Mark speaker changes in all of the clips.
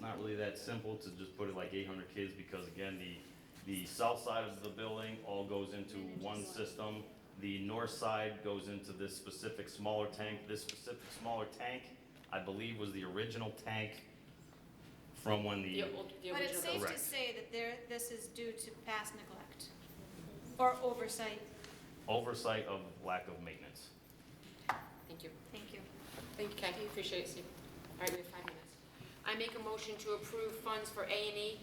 Speaker 1: not really that simple to just put it like eight hundred kids, because again, the, the south side of the building all goes into one system. The north side goes into this specific smaller tank, this specific smaller tank, I believe was the original tank from when the,
Speaker 2: The old, the
Speaker 3: But it's
Speaker 2: original.
Speaker 3: safe to
Speaker 1: Correct.
Speaker 3: say that there, this is due to past neglect or oversight.
Speaker 1: oversight of lack of maintenance.
Speaker 2: Thank you.
Speaker 3: Thank you.
Speaker 2: Thank you, Kathy, appreciate it, Steve. All right, we have five minutes. I make a motion to approve funds for A and E.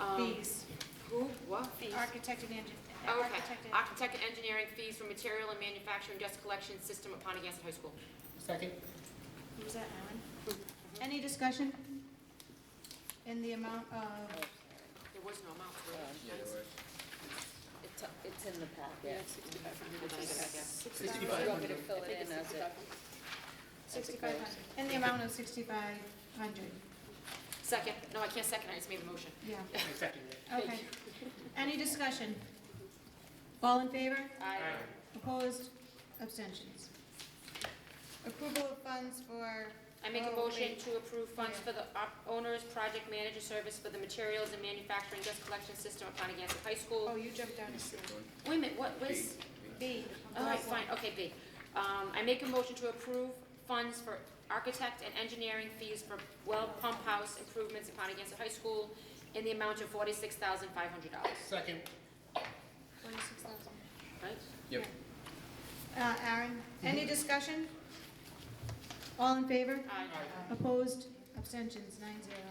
Speaker 2: Um,
Speaker 3: Fees,
Speaker 2: Who, what? Fees.
Speaker 3: architect and engineer.
Speaker 2: Oh, Okay, architect and engineering fees for material and manufacturing dust collection system at Pontiac High School.
Speaker 4: Second.
Speaker 3: Was that Alan? Any discussion? In the amount of,
Speaker 2: There was no amount. for it.
Speaker 5: It's, it's in the
Speaker 2: Yeah,
Speaker 5: packet.
Speaker 2: it's 6,500, I think, yeah.
Speaker 5: You
Speaker 4: 65.
Speaker 3: sixty-five,
Speaker 5: want me to fill it in as it?
Speaker 3: sixty-five hundred, in the amount of sixty-five hundred,
Speaker 2: Second, no, I can't second, I just made the motion.
Speaker 3: yeah,
Speaker 4: Second.
Speaker 3: okay. Any discussion? All in favor?
Speaker 2: Aye.
Speaker 3: Opposed? Abstentions? Approval of funds for,
Speaker 2: I make a
Speaker 3: Oh,
Speaker 2: motion
Speaker 3: wait.
Speaker 2: to approve funds for the op- owner's project manager service for the materials and manufacturing dust collection system at Pontiac High School.
Speaker 3: oh, you jumped down to C.
Speaker 2: Wait a minute, what was?
Speaker 3: B.
Speaker 2: All right, fine, okay, B. Um, I make a motion to approve funds for architect and engineering fees for well pump house improvements at Pontiac High School in the amount of forty-six thousand five hundred dollars,
Speaker 4: Second.
Speaker 3: Forty-six thousand.
Speaker 2: right?
Speaker 4: Yep.
Speaker 3: Uh, Aaron, any discussion? All in favor?
Speaker 2: Aye.
Speaker 3: Opposed? Abstentions? Nine zero.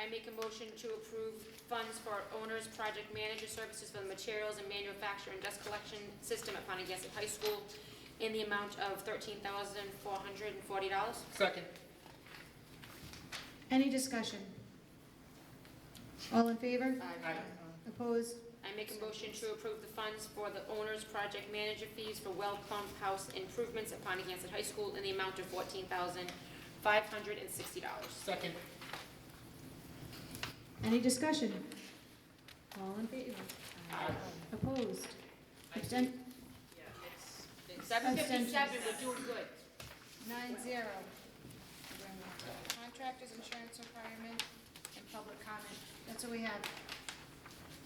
Speaker 2: I make a motion to approve funds for owner's project manager services for the materials and manufacture and dust collection system at Pontiac High School in the amount of thirteen thousand four hundred and forty dollars.
Speaker 4: Second.
Speaker 3: Any discussion? All in favor?
Speaker 4: Aye.
Speaker 3: Opposed?
Speaker 2: I make a motion to approve the funds for the owner's project manager fees for well pump house improvements at Pontiac High School in the amount of fourteen thousand five hundred and sixty dollars.
Speaker 4: Second.
Speaker 3: Any discussion? All in favor? Opposed? Absten-
Speaker 2: Seven fifty-seven, we're doing good.
Speaker 3: Nine zero. Contractors, insurance requirement, and public comment. That's what we have.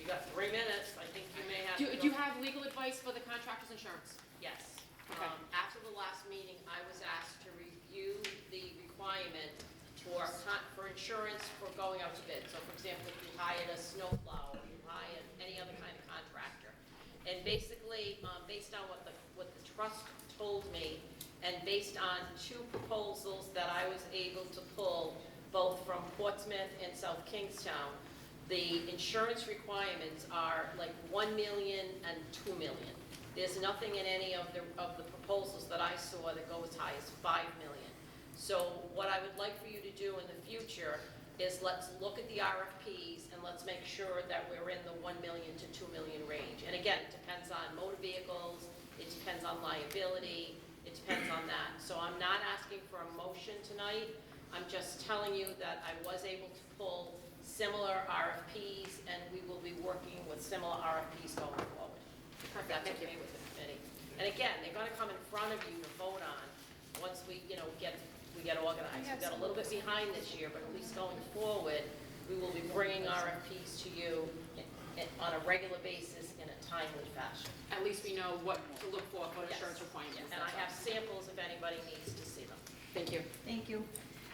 Speaker 6: You got three minutes, I think you may have
Speaker 2: Do,
Speaker 6: to
Speaker 2: do you
Speaker 6: go-
Speaker 2: have legal advice for the contractor's insurance?
Speaker 6: Yes.
Speaker 2: Okay.
Speaker 6: Um, after the last meeting, I was asked to review the requirement for con, for insurance for going out to bid. So for example, if you hired a snowplow, or you hired any other kind of contractor. And basically, um, based on what the, what the trust told me, and based on two proposals that I was able to pull, both from Portsmouth and South Kingstown, the insurance requirements are like 1 million and 2 million. There's nothing in any of the, of the proposals that I saw that go as high as 5 million. So what I would like for you to do in the future is let's look at the RFPs and let's make sure that we're in the 1 million to 2 million range. And again, it depends on motor vehicles, it depends on liability, it depends on that. So I'm not asking for a motion tonight, I'm just telling you that I was able to pull similar RFPs, and we will be working with similar RFPs going forward. If that's
Speaker 2: Thank you.
Speaker 6: okay with the committee. And again, they're gonna come in front of you to vote on, once we, you know, get, we get organized. We got a little bit behind this year, but at least going forward, we will be bringing RFPs to you in- in- on a regular basis in a timely fashion.
Speaker 2: At least we know what to look for for
Speaker 6: Yes.
Speaker 2: insurance requirements.
Speaker 6: And I have samples if anybody needs to see them.
Speaker 2: Thank you.
Speaker 3: Thank you.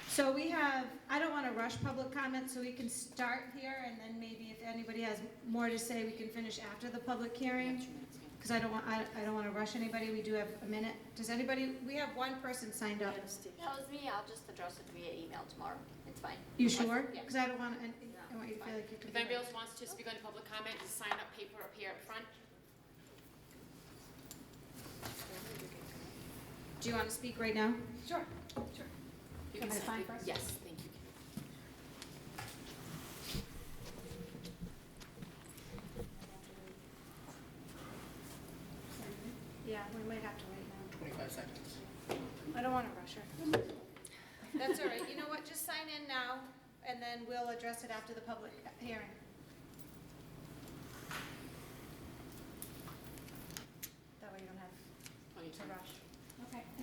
Speaker 3: So we have, I don't want to rush public comment, so we can start here, and then maybe if anybody has more to say, we can finish after the public hearing, because I don't want, I, I don't want to rush anybody, we do have a minute. Does anybody, we have one person signed up.
Speaker 7: That was me, I'll just address it via email tomorrow, it's fine.
Speaker 3: You sure?
Speaker 7: Yeah.
Speaker 3: Because I don't want, I want you to feel like you're.
Speaker 2: If anybody else wants to speak on public comment, just sign up paper up here up front.
Speaker 3: Do you want to speak right now?
Speaker 7: Sure.
Speaker 2: You
Speaker 3: Can I
Speaker 2: sign-
Speaker 3: sign first?
Speaker 2: Yes, thank you.
Speaker 3: Yeah, we might have to wait now.
Speaker 4: Twenty-five seconds.
Speaker 3: I don't want to rush her. That's all right, you know what, just sign in now, and then we'll address it after the public hearing. That way you don't have
Speaker 2: Oh, you
Speaker 3: to
Speaker 2: turn.
Speaker 3: rush. Okay.